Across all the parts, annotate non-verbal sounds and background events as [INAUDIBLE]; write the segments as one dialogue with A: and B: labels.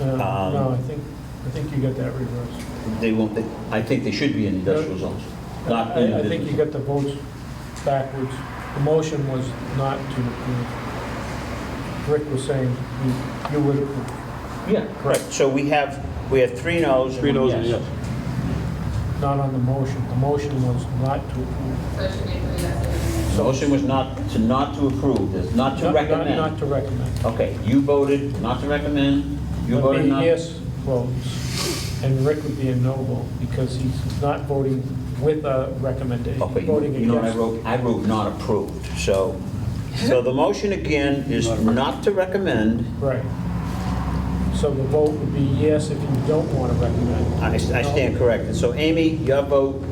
A: Uh, No,
B: Um,
A: I think, I think you got that reversed.
B: They won't, they- I think they should be in industrial zones, not in
A: I I
B: the
A: think you
B: business.
A: got the votes backwards. The motion was not to approve. Rick was saying you- you would approve.
B: Yeah, correct. So we have, we have three noes. and
C: Three
B: one
C: noes and a yes.
A: not on the motion. The motion was not to approve.
D: So it should be three yeses.
B: So Motion was not, to not to approve, this, not
A: Not- not-
B: to
A: Not
B: recommend.
A: to recommend.
B: Okay, you voted not to recommend, you
A: There'd
B: voted
A: be
B: not.
A: Yes votes, and Rick would be a no vote, because he's not voting with a recommendation,
B: Okay, you
A: voting
B: you know what I
A: against.
B: wrote? I wrote not approved, so, so the motion again is not to recommend.
A: Right. So the vote would be yes if you don't want to recommend.
B: I I stand corrected. So Amy, your vote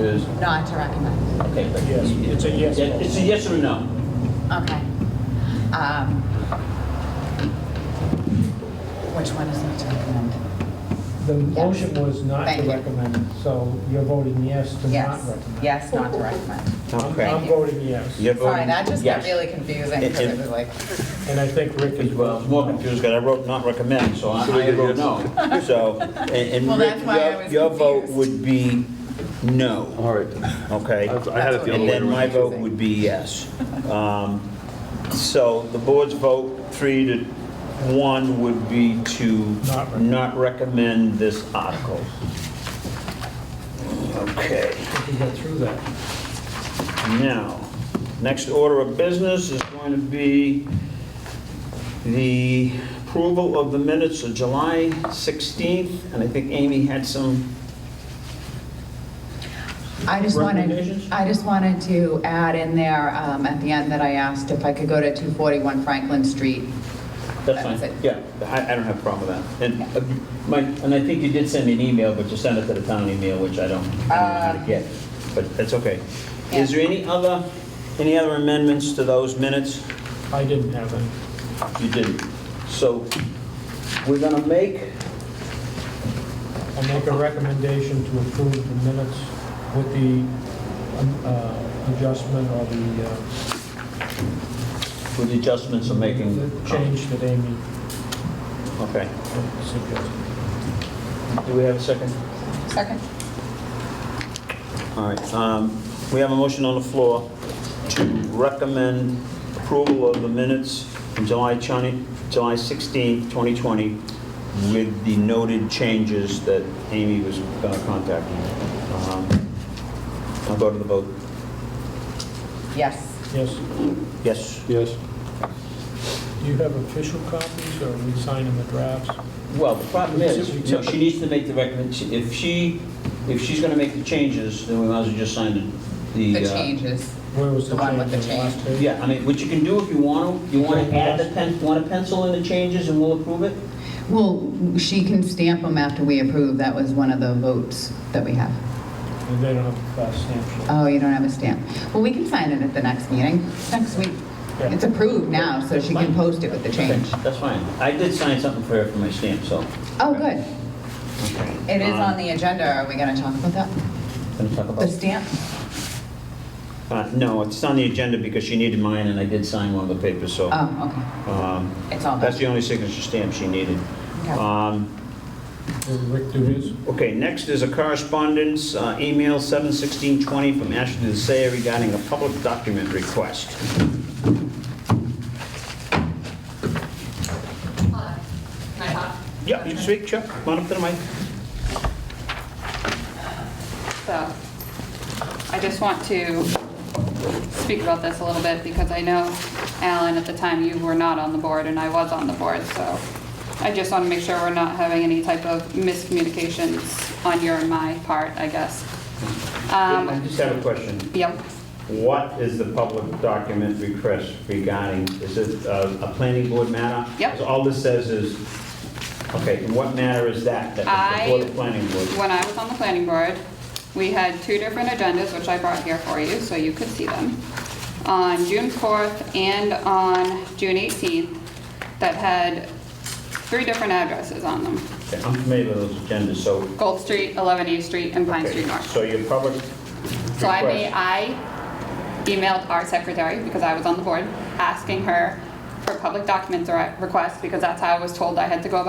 B: is,
E: Not to recommend.
B: okay. but-
A: Yes, it's a yes vote.
B: It's a yes or a no?
E: Okay. Um, Which one is not to recommend?
A: The motion was not
E: Thank
A: to
E: you.
A: recommend, so you're voting yes to not
E: Yes,
A: recommend.
E: yes, not to recommend.
A: I'm-
B: Okay.
A: I'm voting yes,
B: You're
E: Sorry,
B: voting
E: that just got
B: Um, yes.
E: really confusing
B: It-
E: because
B: it-
E: it was like,
A: and I think Rick is
B: Well,
A: well.
B: it's more confused because I wrote not recommend, so I I wrote no.
A: [LAUGHS]
B: So, and-
E: Well,
B: and
E: that's
B: Rick,
E: why I
B: your-
E: was
B: your vote
E: confused.
B: would be no,
C: All right.
A: Uh-huh.
B: okay?
C: I I had it the other
B: And
C: way
B: then my
C: around.
B: vote would be yes. Um, So the board's vote, three to one, would be to
A: Not recommend.
B: not recommend this article. Okay.
A: If we get through that.
B: Now, next order of business is going to be the approval of the minutes of July 16th, and I think Amy had some,
E: I just wanted,
B: Recommendations?
E: I just wanted to add in there um, at the end that I asked if I could go to 241 Franklin Street.
B: that's
E: That was
B: fine.
E: it.
B: Yeah, I I don't have a problem with that. And uh, Mike, and I think you did send me an email, but you sent it to the town email, which I don't I don't know how to
E: Uh.
B: get, but that's okay. Is
E: Yeah.
B: there any other, any other amendments to those minutes?
A: I didn't have any.
B: You didn't. So we're going to make,
A: I make a recommendation to approve the minutes with the um, uh, adjustment or the uh,
B: with the adjustments of making...
A: the change that Amy
B: Okay.
A: suggested.
B: Do we have a second?
E: Second?
B: All right, um, we have a motion on the floor to recommend approval of the minutes from July 20 July 16, 2020, with the noted changes that Amy was going to contact. Um, I'll go to the vote.
E: Yes.
A: Yes,
B: Yes.
C: Yes.
A: do you have official copies, or are we signing the drafts?
B: Well, the problem is,
A: Except-
B: no, she needs to make the recommendation, if she, if she's going to make the changes, then we might as well just sign the...
E: The
B: uh,
E: changes.
A: Where was the
E: The one
A: change?
E: with the
A: on last page?
B: Yeah, I mean, what you can do if you want to, you want to add the pen, want to pencil in the changes and we'll approve it?
E: Well, she can stamp them after we approve. That was one of the votes that we have.
A: And they don't have a class stamp.
E: Oh, you don't have a stamp. Well, we can sign it at the next meeting, next week.
A: Yeah.
E: It's approved now, so she can post it with the change.
B: Okay, That's fine. I did sign something for her for my stamp, so.
E: Oh, good. It is
B: Um, oh.
E: on the agenda. Are we going to talk about that?
B: Gonna talk
E: The
B: about,
E: stamp?
B: uh, no, it's on the agenda because she needed mine and I did sign one of the papers, so.
E: Oh,
B: um,
E: okay. It's all
B: That's
E: done.
B: the only signature stamp she needed.
E: Okay.
B: Um,
A: Did Rick do his?
B: Okay, next is a correspondence, uh, email 71620 from Ashley Desayer regarding a public document request.
D: Hold on. Can I talk?
B: Yeah, you speak, Chuck, come on up to the mic.
F: So I just want to speak about this a little bit because I know, Alan, at the time you were not on the board and I was on the board, so I just want to make sure we're not having any type of miscommunications on your and my part, I guess. Um,
B: I just have a question.
F: Yep,
B: What is the public document request regarding? Is it uh, a planning board matter?
F: Yep.
B: So All this says is, okay, what matter is that? That's
F: I-
B: before the planning board?
F: when I was on the planning board, we had two different agendas, which I brought here for you, so you could see them. On June 4th and on June 18th, that had three different addresses on them.
B: Okay, I'm familiar with those agendas, so.
F: Gold Street, 11 East Street, and Pine
B: okay,
F: Street North.
B: So your public
F: So I made,
B: request,
F: I emailed our secretary, because I was on the board, asking her for public documents or requests, because that's how I was told I had to go about